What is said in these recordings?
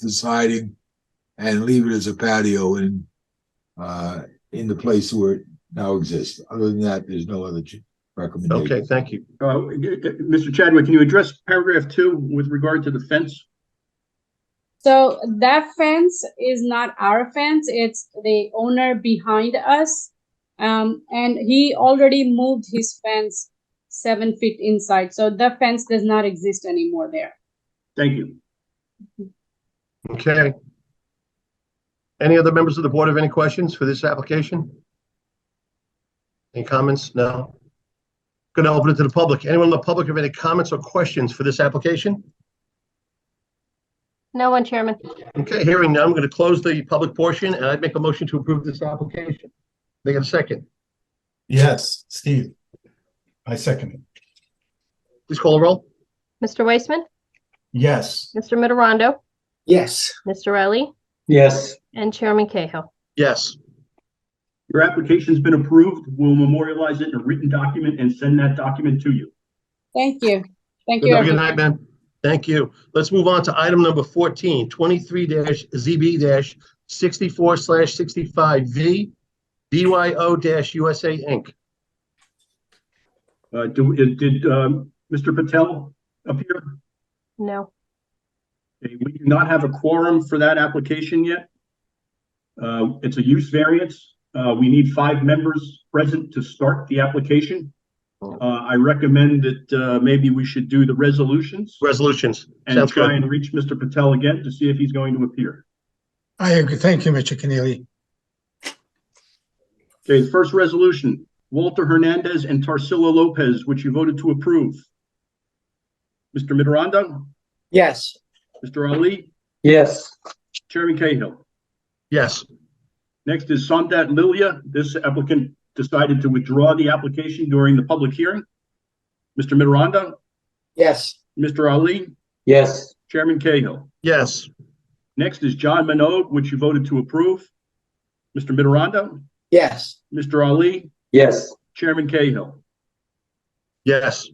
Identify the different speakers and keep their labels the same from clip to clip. Speaker 1: the siding and leave it as a patio in, uh, in the place where it now exists. Other than that, there's no other ch- recommendation.
Speaker 2: Okay, thank you.
Speaker 3: Uh, g- g- Mr. Chadwick, can you address paragraph two with regard to the fence?
Speaker 4: So that fence is not our fence, it's the owner behind us. Um, and he already moved his fence seven feet inside, so the fence does not exist anymore there.
Speaker 3: Thank you.
Speaker 2: Okay. Any other members of the board have any questions for this application? Any comments? No? Going to open it to the public. Anyone in the public have any comments or questions for this application?
Speaker 5: No one, Chairman.
Speaker 2: Okay, hearing none, I'm going to close the public portion and I'd make a motion to approve this application. They have a second.
Speaker 6: Yes, Steve. I second it.
Speaker 2: Please call the roll.
Speaker 5: Mr. Weissman,
Speaker 6: Yes,
Speaker 5: Mr. Mitterondo,
Speaker 7: Yes.
Speaker 5: Mr. Riley,
Speaker 7: Yes.
Speaker 5: and Chairman Cahill.
Speaker 2: Yes.
Speaker 3: Your application's been approved. We'll memorialize it in a written document and send that document to you.
Speaker 4: Thank you, thank you.
Speaker 2: Good
Speaker 4: everyone.
Speaker 2: night, man. Thank you. Let's move on to item number 14, 23-ZB-64/65V, BYO-USA Inc.
Speaker 3: Uh, do, is- did, um, Mr. Patel appear?
Speaker 5: No.
Speaker 3: Okay, We do not have a quorum for that application yet. Uh, it's a use variance. Uh, we need five members present to start the application. Uh, I recommend that, uh, maybe we should do the resolutions
Speaker 2: Resolutions.
Speaker 3: and
Speaker 2: Sounds
Speaker 3: try
Speaker 2: good.
Speaker 3: and reach Mr. Patel again to see if he's going to appear.
Speaker 8: I agree. Thank you, Mr. Keneally.
Speaker 3: Okay, the first resolution, Walter Hernandez and Tarsila Lopez, which you voted to approve. Mr. Mitterondo,
Speaker 7: Yes.
Speaker 3: Mr. Ali,
Speaker 7: Yes.
Speaker 3: Chairman Cahill.
Speaker 2: Yes.
Speaker 3: Next is Somdat Lilia. This applicant decided to withdraw the application during the public hearing. Mr. Mitterondo,
Speaker 7: Yes.
Speaker 3: Mr. Ali,
Speaker 7: Yes.
Speaker 3: Chairman Cahill.
Speaker 2: Yes.
Speaker 3: Next is John Minogue, which you voted to approve. Mr. Mitterondo,
Speaker 7: Yes.
Speaker 3: Mr. Ali,
Speaker 7: Yes.
Speaker 3: Chairman Cahill.
Speaker 2: Yes.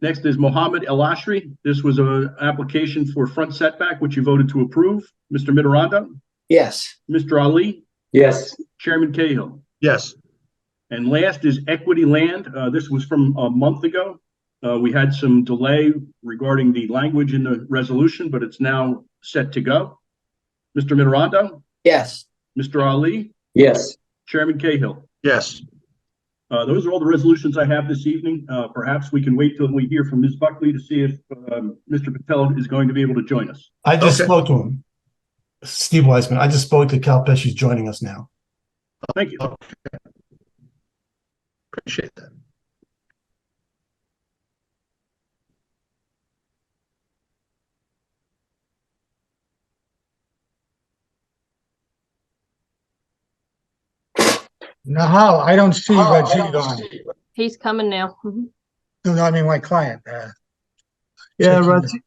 Speaker 3: Next is Mohammed El Ashri. This was an application for front setback, which you voted to approve. Mr. Mitterondo,
Speaker 7: Yes.
Speaker 3: Mr. Ali,
Speaker 7: Yes.
Speaker 3: Chairman Cahill.
Speaker 2: Yes.
Speaker 3: And last is Equity Land. Uh, This was from a month ago. Uh, We had some delay regarding the language in the resolution, but it's now set to go. Mr. Mitterondo,
Speaker 7: Yes.
Speaker 3: Mr. Ali,
Speaker 7: Yes.
Speaker 3: Chairman Cahill.
Speaker 2: Yes.
Speaker 3: Uh, Those are all the resolutions I have this evening. Uh, Perhaps we can wait till we hear from Ms. Buckley to see if um, Mr. Patel is going to be able to join us.
Speaker 6: I just
Speaker 2: Okay.
Speaker 6: spoke to him. Steve Weisman, I just spoke to Cal Pesci, he's joining us now.
Speaker 3: Thank you.
Speaker 2: Appreciate that.
Speaker 8: Nahal, I don't see Rajiv on.
Speaker 5: He's coming now. Mhm.
Speaker 8: No, no, I mean my client. uh,
Speaker 9: Yeah,
Speaker 8: checking
Speaker 9: Rajiv,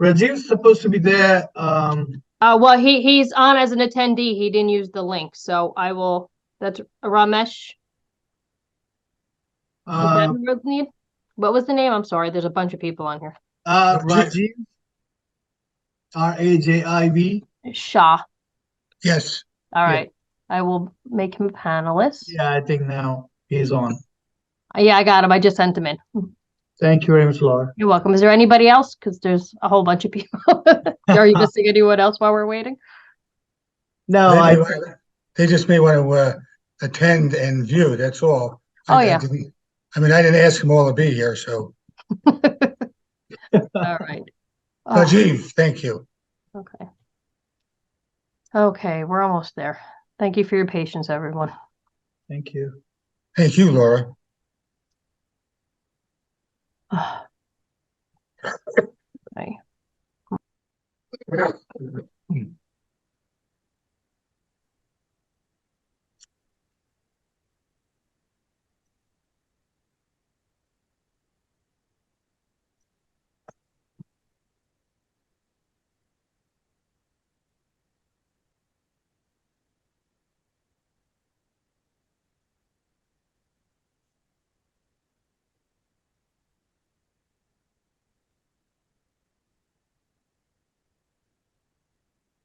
Speaker 9: Rajiv's supposed to be there. Um,
Speaker 5: Uh, well, he, he's on as an attendee. He didn't use the link, so I will, that's Ramesh. is that
Speaker 9: uh,
Speaker 5: who wrote the name? What was the name? I'm sorry, there's a bunch of people on here.
Speaker 9: uh, Rajiv. R A J I V.
Speaker 5: Shah,
Speaker 8: Yes,
Speaker 5: all right. I will make him panelist.
Speaker 9: Yeah, I think now he's on.
Speaker 5: Yeah, I got him. I just sent him in. Mm-hmm.
Speaker 9: Thank you very much, Laura.
Speaker 5: You're welcome. Is there anybody else? Because there's a whole bunch of people. Are you missing anyone else while we're waiting?
Speaker 9: No,
Speaker 8: They
Speaker 9: I,
Speaker 8: may wanna- they just may want to, uh, attend and view, that's all. I-
Speaker 5: Oh,
Speaker 8: I
Speaker 5: yeah.
Speaker 8: didn't- I mean, I didn't ask them all to be here, so
Speaker 5: All right. Oh.
Speaker 8: Rajiv, thank you.
Speaker 5: Okay. Okay, we're almost there. Thank you for your patience, everyone.
Speaker 9: thank you.
Speaker 8: Thank you, Laura.
Speaker 5: Okay.